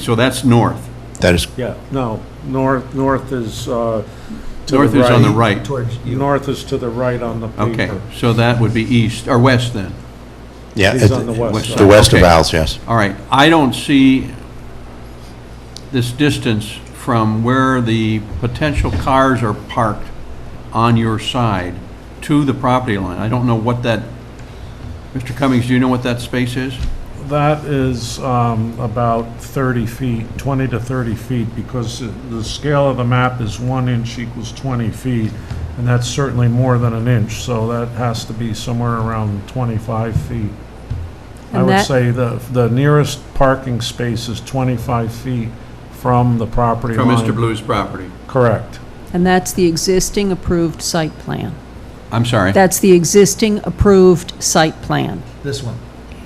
So that's north. That is, Yeah, no, north, north is, uh, to the right. North is on the right. towards you. North is to the right on the Okay, paper. so that would be east, or west then. yeah, He's on the it- west west the side. side. west of Okay. Al's, yes. All right, I don't see this distance from where the potential cars are parked on your side to the property line. I don't know what that, Mr. Cummings, do you know what that space is? That is um, about 30 feet, 20 to 30 feet, because the scale of the map is one inch equals 20 feet, and that's certainly more than an inch, so that has to be somewhere around 25 feet. I And would that- say the, the nearest parking space is 25 feet from the property From line. Mr. Blue's property? Correct. And that's the existing approved site plan. I'm sorry. That's the existing approved site plan, This one.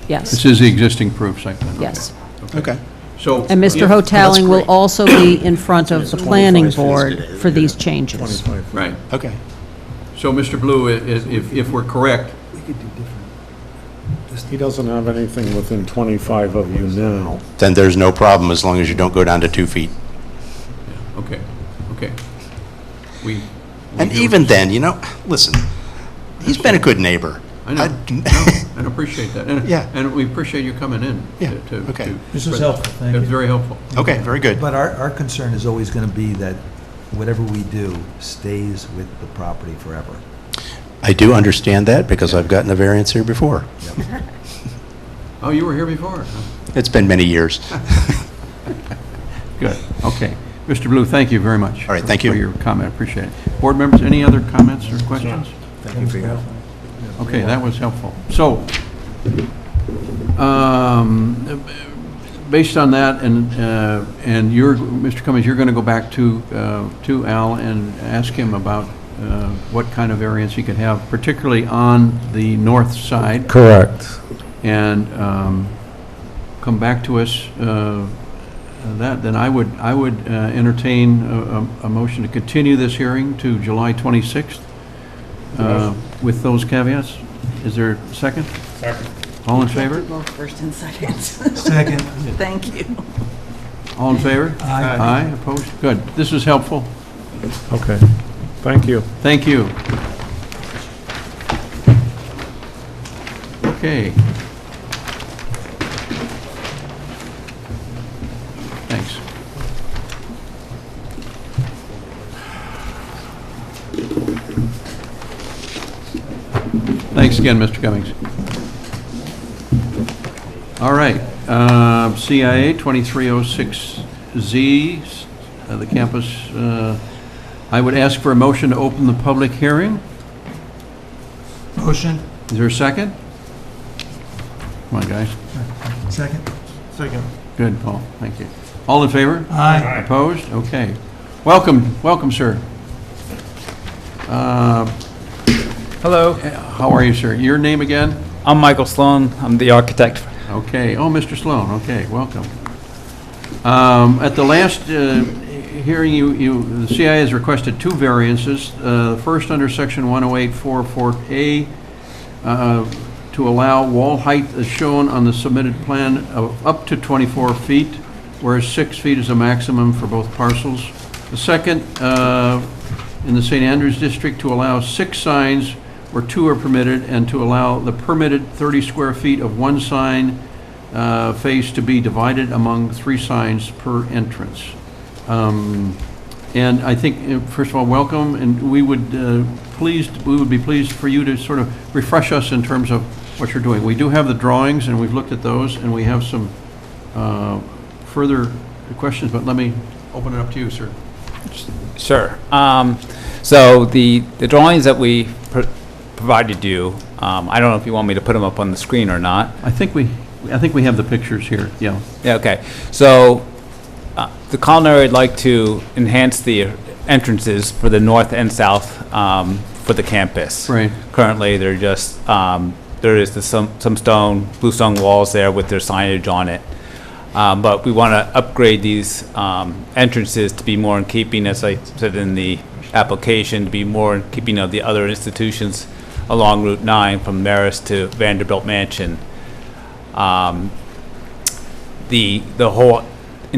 This yes, is the existing proof site plan? okay. yes. Okay. So. And Mr. if- Hotelling will great. also be in front of the planning 25 feet board today, for these yeah. changes. 25 feet. Right. Okay. So, Mr. Blue, i- i- if, if we're correct, We could do different. He doesn't have anything within 25 of you now. Then there's no problem as long as you don't go down to two feet. okay, okay. We. we And do- even then, you know, listen, he's been a good neighbor. I know, d- no, and appreciate that. And- Yeah. And we appreciate you coming in. Yeah, to- to- okay. to- This is helpful, thank It's you. very helpful. Okay, very good. But our, our concern is always going to be that whatever we do stays with the property forever. I do understand that because I've gotten a variance here before. Oh, you were here before? huh? It's been many years. Good, okay. Mr. Blue, thank you very much. All right, thank you. For your comment, appreciate it. Board members, any other comments or questions? Thank you for your help. Okay, that was helpful. So, um, based on that, and, uh, and you're, Mr. Cummings, you're going to go back to, uh, to Al and ask him about uh, what kind of variance he could have, particularly on the north side, Correct. and um, come back to us uh, that, then I would, I would uh, entertain a- a a motion to continue this hearing to July 26th uh, with those caveats. Is there a second? Second. All in favor? Both first and second. Second, Thank you. All in favor? Aye. Aye, opposed? Good. This is helpful. Okay, thank you. Thank you. Okay. Thanks. Thanks again, Mr. Cummings. All right, uh, CIA 2306Z, uh, the campus, uh, I would ask for a motion to open the public hearing. motion, Is there a second? Come on, guys. second. Second. Good, Paul, thank you. All in favor? Aye. Opposed? Okay. Welcome, welcome, sir. Uh, Hello, Eh, How are you, sir? Your name again? I'm Michael Sloan. I'm the architect. Okay, oh, Mr. Sloan, okay, welcome. Um, At the last uh, hearing, you, you, the CIA has requested two variances. Uh, The first under section 10844A uh, to allow wall height as shown on the submitted plan of up to 24 feet, whereas six feet is a maximum for both parcels. The second, uh, in the St. Andrews District, to allow six signs where two are permitted, and to allow the permitted 30 square feet of one sign uh, face to be divided among three signs per entrance. Um, And I think, uh, first of all, welcome, and we would uh, pleased, we would be pleased for you to sort of refresh us in terms of what you're doing. We do have the drawings, and we've looked at those, and we have some uh, further questions, but let me open it up to you, sir. Sure. Um, so the, the drawings that we pr- provided you, um, I don't know if you want me to put them up on the screen or not. I think we, I think we have the pictures here, yeah. Yeah, okay. So, uh, the culinary would like to enhance the entrances for the north and south, um, for the campus. Right. Currently, they're just, um, there is the some, some stone, blue stone walls there with their signage on it. Um, but we want to upgrade these, um, entrances to be more in keeping, as I said in the application, to be more in keeping of the other institutions along Route 9 from Marist to Vanderbilt Mansion. Um, the, the whole